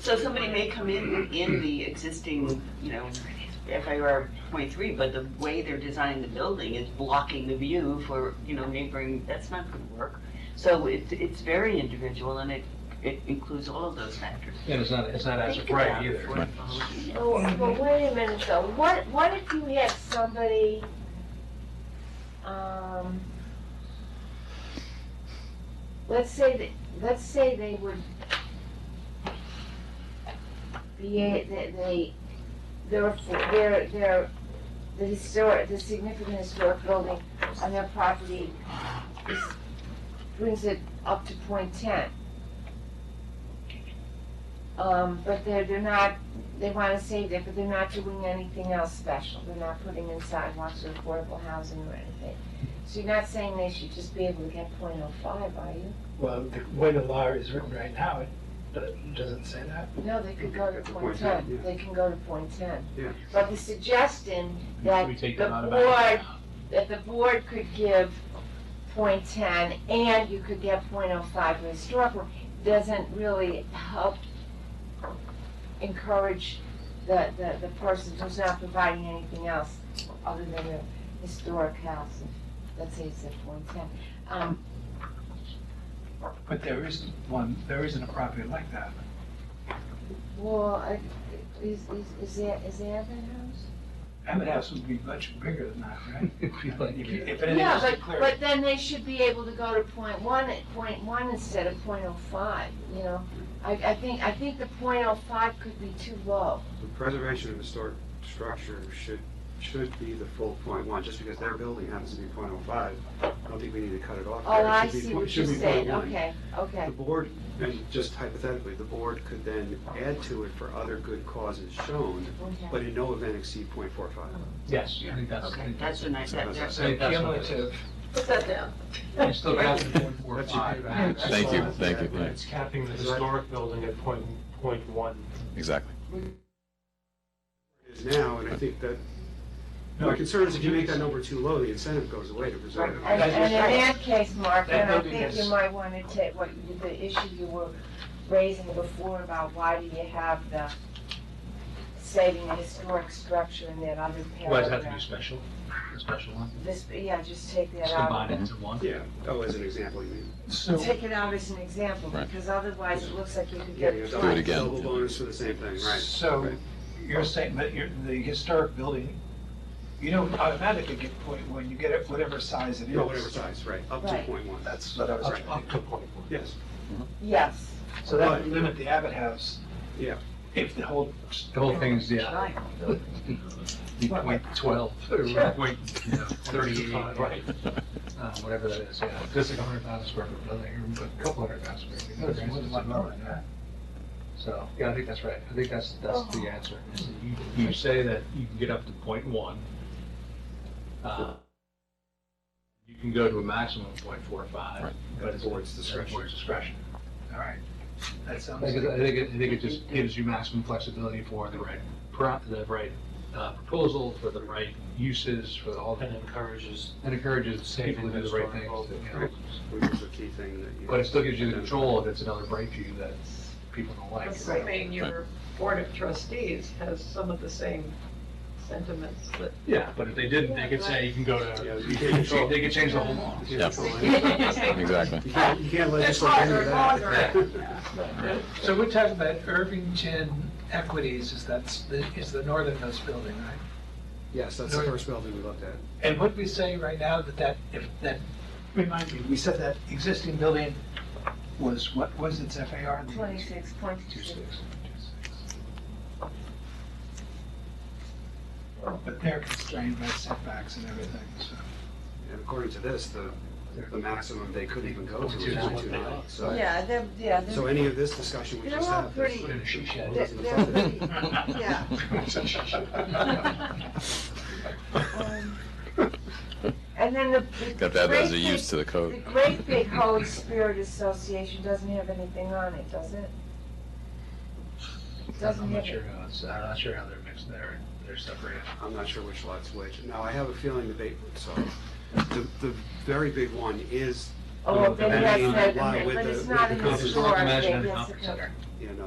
So somebody may come in, in the existing, you know, FAR point three, but the way they're designing the building is blocking the view for, you know, neighboring, that's not gonna work. So it's, it's very individual and it, it includes all of those factors. And it's not, it's not as of right either. Well, well, wait a minute though, what, what if you had somebody, um, let's say that, let's say they would be, a- they, they, their, their, their, the historic, the significant historic building on their property is, brings it up to point ten. Um, but they're, they're not they wanna save it, but they're not doing anything else special, they're not putting in sidewalks or affordable housing or anything. So you're not saying they should just be able to get .05, are you? Well, the way the law is written right now, it do- doesn't say that. No, they could go to .10. yeah. they can go to .10. Yeah. But the suggestion that We take the that out of our- board, that the board could give .10 and you could get .05 for historical, doesn't really help encourage the, the, the person who's not providing anything else other than their historic house, let's say it's at .10. Um, But there is one, there isn't a property like that. well, I- is, is, is there, is there that house? Emmett House would be much bigger than that, right? If you like, If you- if anything Yeah, else is but, clear. but then they should be able to go to point one, at point one instead of point oh five, you know? I, I think, I think the point oh five could be too low. The preservation of historic structure should, should be the full point one, just because their building happens to be point oh five. I don't think we need to cut it off. Oh, there. It I should be see point- what should you're be saying, point one. okay, okay. The board, and just hypothetically, the board could then add to it for other good causes shown, okay. but in no event exceed point four five. Yes, I think that's, I Okay, think that's that's. a nice, that, that's. So cumulative, Put that down. you still got the one, four, That's your five. feedback. Thank you, thank you, It's capping the historic building at point, point one. exactly. Is now, and I think that, my concern is if you make that number too low, the incentive goes away to preserve it. And, and in that case, Mark, That and I maybe think you is- might wanna take what, you- the issue you were raising before about why do you have the saving the historic structure in that other Why does it have to be paragraph? special, a special one? This, yeah, just take that Just out. combine it into one? Yeah, oh, as an example, you mean. So, Take it out as an example, Right. because otherwise it looks like you could Yeah, get you have it Do it double- twice. again. Double bonus for the same thing, right? so Right. you're saying that you're, the historic building, you don't automatically get point one, you get it whatever size it is. No, whatever size, right, up to Right. point one, That's what I was Right. trying to to point one. yes. Yes. So that would limit the Abbott House. Yeah. If the whole. The whole thing's, yeah, Right. point twelve, or point thirty-eight, Right. uh, whatever that is, yeah. Just like a hundred thousand square foot building, or a couple hundred thousand square feet. There's more than one building, yeah. So, yeah, I think that's right. I think that's, that's the answer. is that You you say that you can get up to point one. uh, You can go to a maximum of point four five, Right. but it's. Board's discretion. Board's discretion. All right. That I sounds. think, it- I think, it- I think it just gives you maximum flexibility for the right, pro- the right uh, proposal, for the right uses, for all And the, encourages, and encourages people to do the right things. to, you know. Which is a key thing that you. But it still gives you the control if it's another break view that people don't like. Assuming your board of trustees has some of the same sentiments that Yeah, but if they didn't, they could say you can go Yeah, to, you can't control- they could change the whole law. You Yeah. can't control anything. Exactly. You can't- you can't It's legislate any of longer that. and So we're talking about Irvington Equities is that's, the- is the northernmost building, right? Yes, that's the first building we looked at. And what we say right now that that, if, that, remind me, we said that existing building was, what was its FAR? Twenty-six point Two two. six. But they're constrained by setbacks and everything, so. And according to this, the, the maximum they could even go to is Two nine. 2.29. So- Yeah, they're, yeah, So any of this discussion we They're just all had. pretty- Put in a she shed. They're- they're pretty- yeah. um, And then the. the Got that as great a big- use to the code. The Great Big Holy Spirit Association doesn't have anything on it, does it? I'm Doesn't not have sure it. how it's, I'm not sure how they're mixed there, they're separated. I'm not sure which lot's which. Now, I have a feeling the big, so, the, the very big one is, Oh, And then then that's, you that- comply with but the- it's with not the in the conference store. Conference center. you know,